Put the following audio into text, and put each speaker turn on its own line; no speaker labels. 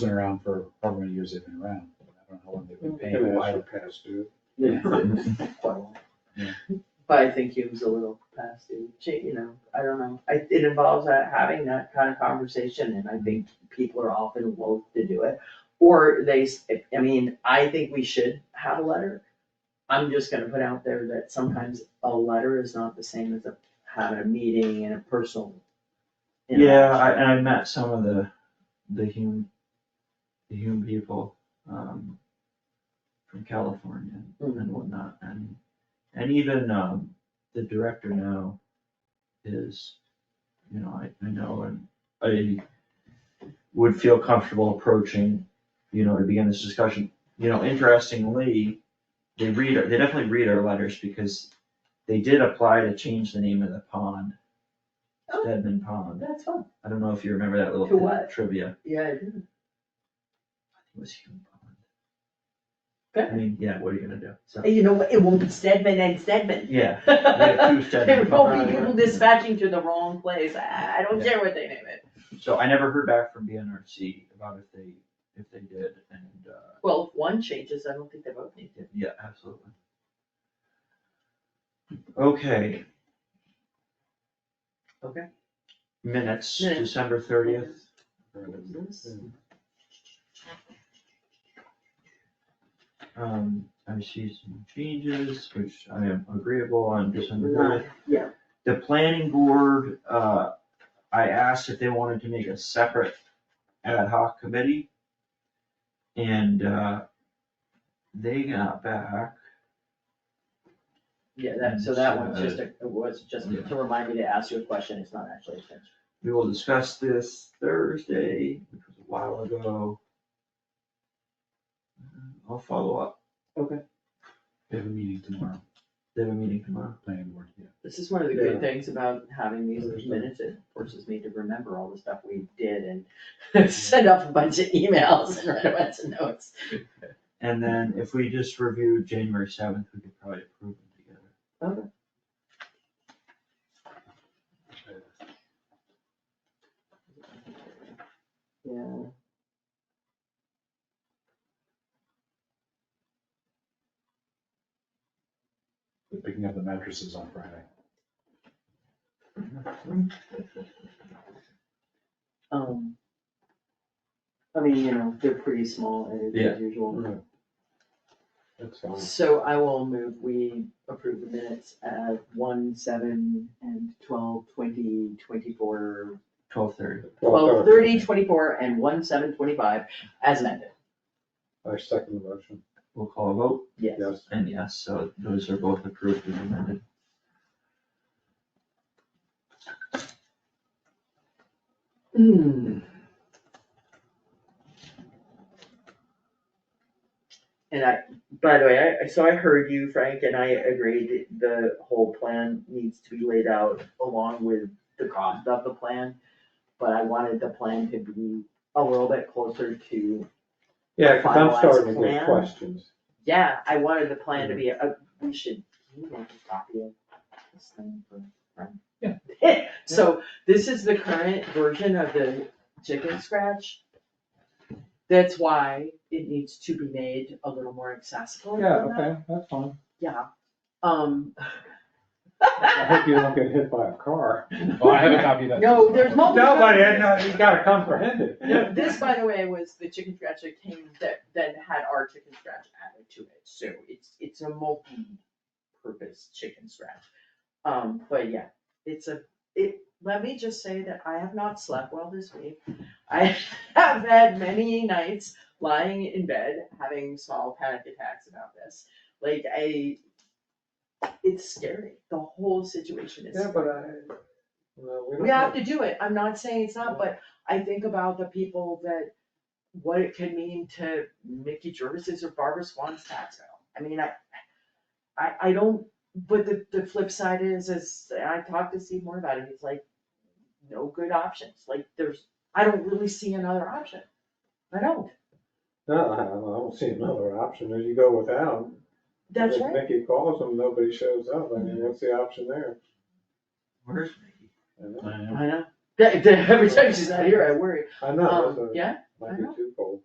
been around for however many years they've been around. I don't know how long they've been
Maybe
paying.
that's
Why-
what passed due.
But I think he was a little past due, cha- you know, I don't know, I, it involves uh, having that kind of conversation, and I think people are often loath to do it. Or they, s- I mean, I think we should have a letter, I'm just gonna put out there that sometimes a letter is not the same as a, having a meeting and a personal.
Yeah, I,
interaction.
and I met some of the, the Hume, the Hume people, um, from California
Mhm.
and whatnot, and, and even, um, the director now is, you know, I, I know, and I would feel comfortable approaching, you know, to begin this discussion, you know, interestingly, they read, our- they definitely read our letters because they did apply to change the name of the pond.
Oh.
Deadman Pond.
That's fun,
I don't know if you remember that little
To what?
trivia.
yeah, I do.
It was human bond. I
Good.
mean, yeah, what are you gonna do? So,
you know, what, it won't be Stedman and Stedman.
yeah, we had
There
two Stedman
will be
bonds.
people dispatching to the wrong place, I, I don't care what they name it.
So I never heard back from BNRC about if they, if they did, and, uh,
Well, if one changes, I don't think they both need to.
yeah, absolutely. Okay.
Okay.
Minutes,
Minutes.
December thirtieth. Um, I see some changes, which I am agreeable on December thirtieth.
yeah.
The planning board, uh, I asked if they wanted to make a separate ad hoc committee. And, uh, they got back,
Yeah, that, so that one's just, a- it was just to remind me to ask you a question, it's not actually a transfer.
we will discuss this Thursday, which was a while ago. Uh, I'll follow up,
They have a meeting tomorrow,
they have a meeting tomorrow.
planning board, yeah.
This is one of the
Yeah.
good things about having these minutes, it forces me to remember all the stuff we did and send off a bunch of emails and write a bunch of notes.
And then if we just review January seventh, we could probably approve them together.
Yeah.
They're picking up the mattresses on Friday.
Um. I mean, you know, they're pretty small as
Yeah.
usual.
That's fine.
So I will move, we approve the minutes at one, seven, and twelve, twenty, twenty-four,
Twelve thirty.
twelve, thirty, twenty-four, and one, seven, twenty-five, as amended,
I second the motion,
We'll call a vote,
yes.
yes.
and yes, so those are both approved and amended.
Hmm. And I, by the way, I, so I heard you, Frank, and I agreed that the whole plan needs to be laid out along with the cost of the plan. But I wanted the plan to be a little bit closer to,
Yeah, cause I'm
Finalized
starting to
plan.
get questions.
yeah, I wanted the plan
Mm.
to be, a- we should, can you make a copy of this thing for Frank? Yeah. So this is the current version of the chicken scratch. That's why it needs to be made a little more accessible. than
Yeah,
that.
okay, that's fine.
Yeah, um.
I hope you don't get hit by a car.
Oh, I have a copy of that.
No, there's multiple.
No, but it, no, you gotta comprehend it.
No, This, by the way, was the chicken scratch that came, that then had our chicken scratch added to it, so it's, it's a multi-purpose chicken scratch. Um, but yeah, it's a, it, let me just say that I have not slept well this week. I have had many nights lying in bed, having small panic attacks about this, like I, it's scary, the whole situation is
Yeah, but I, no, we don't.
we have to do it, I'm not saying it's not, but I think about the people that, what it could mean to Mickey Jervis's or Barbara Swan's tax bill. I mean, I, I, I don't, but the, the flip side is, is, and I talked to Steve more about it, he's like, no good options, like, there's, I don't really see another option. I don't,
No, I don't- I don't see another option, if you go without.
that's
if
right,
Mickey calls them, nobody shows up, I mean, what's the option there?
Where's Mickey?
I know.
I know.
I know, That- that- every time she's not here, I worry,
I know, that's
um,
what-
yeah,
might be
know.
twofold.